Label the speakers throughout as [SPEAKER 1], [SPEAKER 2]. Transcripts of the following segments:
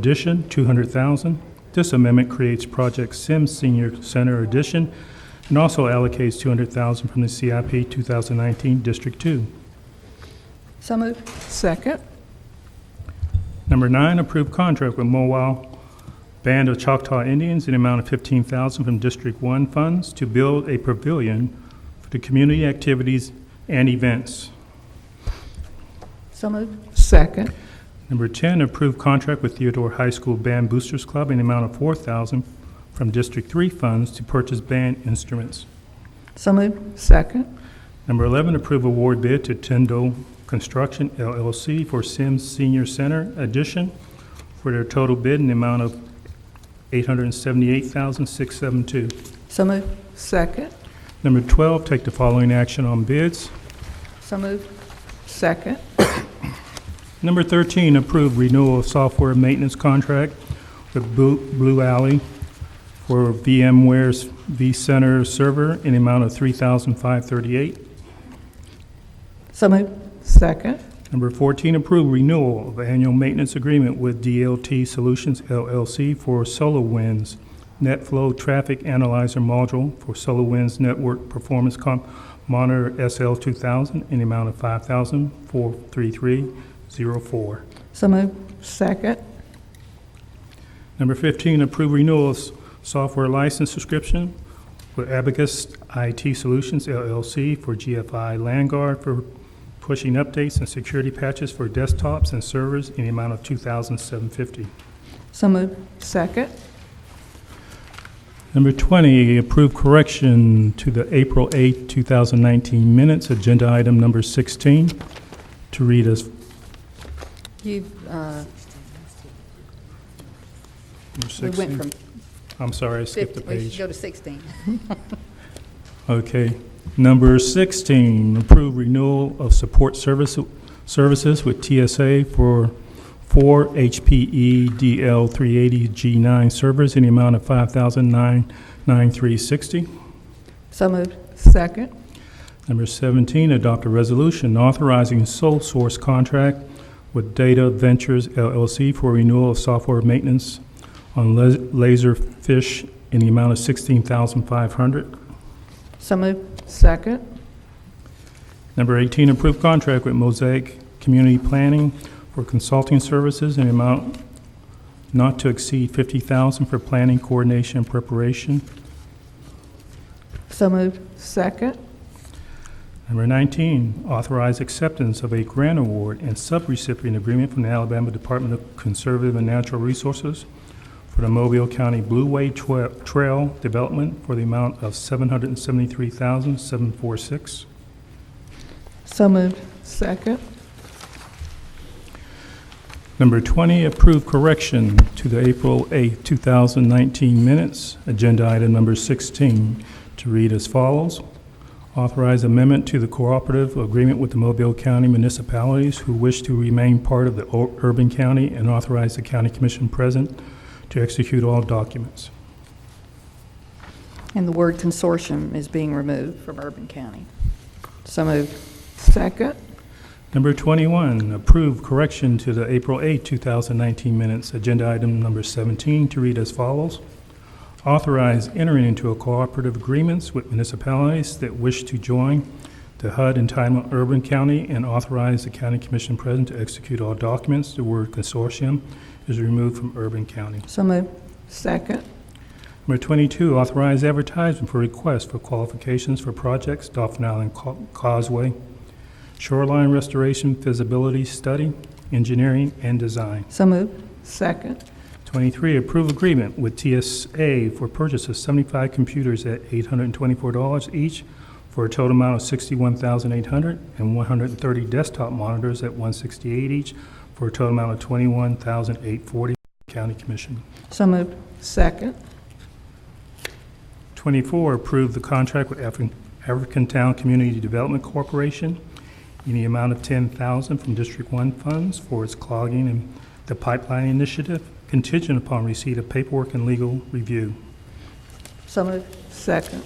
[SPEAKER 1] addition, 200,000. This amendment creates Project Sims Senior Center addition and also allocates 200,000 from the CIP 2019 District 2.
[SPEAKER 2] So moved.
[SPEAKER 3] Second.
[SPEAKER 1] Number nine, approve contract with Mobile Band of Choctaw Indians in the amount of fifteen thousand from District One funds to build a pavilion for the community activities and events.
[SPEAKER 2] So moved.
[SPEAKER 3] Second.
[SPEAKER 1] Number ten, approve contract with Theodore High School Band Boosters Club in the amount of four thousand from District Three funds to purchase band instruments.
[SPEAKER 2] So moved.
[SPEAKER 3] Second.
[SPEAKER 1] Number eleven, approve award bid to Tyndall Construction LLC for Sims Senior Center addition for their total bid in the amount of eight hundred and seventy-eight thousand, six seven two.
[SPEAKER 2] So moved.
[SPEAKER 3] Second.
[SPEAKER 1] Number 12, take the following action on bids.
[SPEAKER 2] So moved.
[SPEAKER 3] Second.
[SPEAKER 1] Number 13, approve renewal of software maintenance contract with Blu- Blue Alley for VMware's vCenter server in the amount of 3538
[SPEAKER 2] So moved.
[SPEAKER 3] Second.
[SPEAKER 1] Number 14, approve renewal of annual maintenance agreement with DLT Solutions LLC for SolarWinds NetFlow Traffic Analyzer Module for SolarWinds Network Performance Com- Monitor SL2000 in the amount of 543304
[SPEAKER 2] So moved.
[SPEAKER 3] Second.
[SPEAKER 1] Number 15, approve renewal of s- software license subscription with Abacus IT Solutions LLC for GFI Landguard for pushing updates and security patches for desktops and servers in the amount of $2,750.
[SPEAKER 2] So moved.
[SPEAKER 3] Second.
[SPEAKER 1] Number 20, approve correction to the April 8, 2019 minutes, agenda item number 16, to read as,
[SPEAKER 2] You've, uh,
[SPEAKER 1] number
[SPEAKER 2] we went
[SPEAKER 1] 16.
[SPEAKER 2] from
[SPEAKER 1] I'm sorry, I skipped the
[SPEAKER 2] 15, we
[SPEAKER 1] page.
[SPEAKER 2] should go to 16.
[SPEAKER 1] Okay. Number 16, approve renewal of support service, services with TSA for four E HPE DL380 G9 servers in the amount of 599360
[SPEAKER 2] So moved.
[SPEAKER 3] Second.
[SPEAKER 1] Number 17, adopt a resolution authorizing sole source contract with Data Ventures LLC for renewal of software maintenance on Las- Laserfish in the amount of 16500
[SPEAKER 2] So moved.
[SPEAKER 3] Second.
[SPEAKER 1] Number 18, approve contract with Mosaic Community Planning for consulting services in amount not to exceed 50000 for planning, coordination, and preparation.
[SPEAKER 2] So moved.
[SPEAKER 3] Second.
[SPEAKER 1] Number 19, authorize acceptance of a grant award and subrecipient agreement from the Alabama Department of Conservative and Natural Resources for the Mobile County Blue Way Twe- Trail Development for the amount of $773,746.
[SPEAKER 2] So moved.
[SPEAKER 3] Second.
[SPEAKER 1] Number 20, approve correction to the April 8, 2019 minutes, agenda item number 16, to read as follows. Authorize amendment to the cooperative agreement with the Mobile County municipalities who wish to remain part of the ur- urban county and authorize the county commission present to execute all documents.
[SPEAKER 2] And the word consortium is being removed from Urban County. So moved.
[SPEAKER 3] Second.
[SPEAKER 1] Number 21, approve correction to the April 8, 2019 minutes, agenda item number 17, to read as follows. Authorize entering into a cooperative agreements with municipalities that wish to join the HUD entitlement urban county and authorize the county commission president to execute all documents. The word consortium is removed from urban county.
[SPEAKER 2] So moved.
[SPEAKER 3] Second.
[SPEAKER 1] Number 22, authorize advertisement for requests for qualifications for projects, Dauphin Island Ca- Causeway, shoreline restoration feasibility study, engineering, and design.
[SPEAKER 2] So moved.
[SPEAKER 3] Second.
[SPEAKER 1] 23, approve agreement with TSA for purchase of 75 computers at $824 each for a total amount of $61,800 and 130 desktop monitors at $168 each for a total amount of $21,840. County Commission.
[SPEAKER 2] So moved.
[SPEAKER 3] Second.
[SPEAKER 1] 24, approve the contract with African African Town Community Development Corporation in the amount of 10000 from District 1 funds for its clogging and the pipeline initiative contingent upon receipt of paperwork and legal review.
[SPEAKER 2] So moved.
[SPEAKER 3] Second.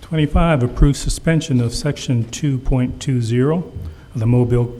[SPEAKER 1] Twenty-five, approve suspension of section two point two zero of the Mobile